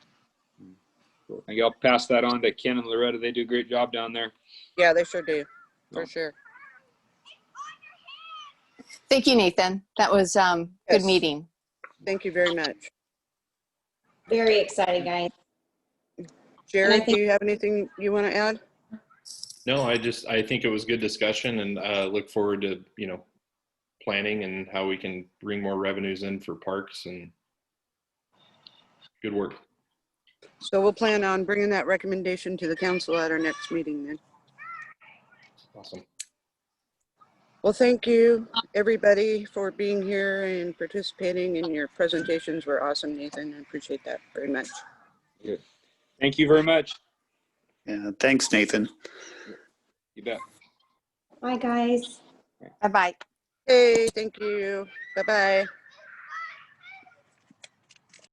I think I'll pass that on to Ken and Loretta. They do a great job down there. Yeah, they sure do, for No. sure. Thank you, Nathan. That was um, good Yes. meeting. Thank you very much. Very exciting, guys. Jared, do think- you have anything you want to add? No, I just, I think it was good discussion and uh, look forward to, you know, planning and how we can bring more revenues in for parks and good work. So we'll plan on bringing that recommendation to the council at our next meeting then. Awesome. Well, thank you, everybody, for being here and participating, and your presentations were awesome, Nathan. I appreciate that very much. Thank you very much. Yeah, thanks, Nathan. You bet. Bye, guys. Bye-bye. Hey, thank you. Bye-bye.